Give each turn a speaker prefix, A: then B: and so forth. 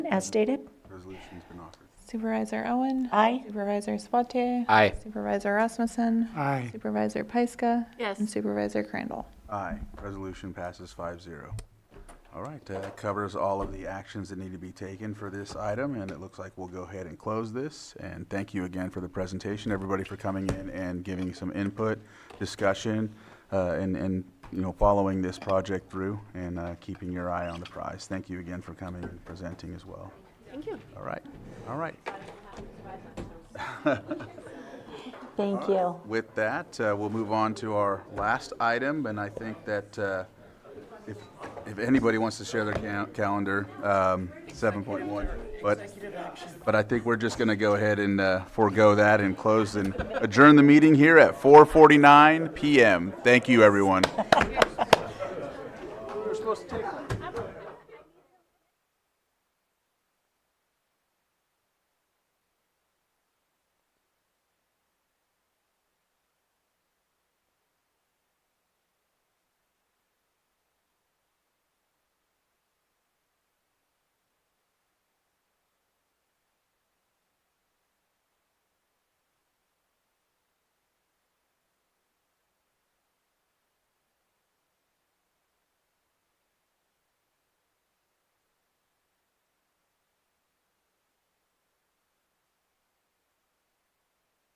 A: as stated.
B: Resolution's been offered.
C: Supervisor Owen.
A: Aye.
C: Supervisor Spatier.
D: Aye.
C: Supervisor Rasmussen.
E: Aye.
C: Supervisor Pyska.
F: Yes.
C: And Supervisor Crandall.
B: Aye. Resolution passes 5-0. All right, that covers all of the actions that need to be taken for this item, and it looks like we'll go ahead and close this. And thank you again for the presentation, everybody for coming in and giving some input, discussion, uh, and, and, you know, following this project through and uh, keeping your eye on the prize. Thank you again for coming and presenting as well.
F: Thank you.
B: All right, all right.
A: Thank you.
B: With that, uh, we'll move on to our last item, and I think that uh, if, if anybody wants to share their cal- calendar, um, 7.1, but, but I think we're just going to go ahead and uh, forego that and close and adjourn the meeting here at 4:49 PM. Thank you, everyone.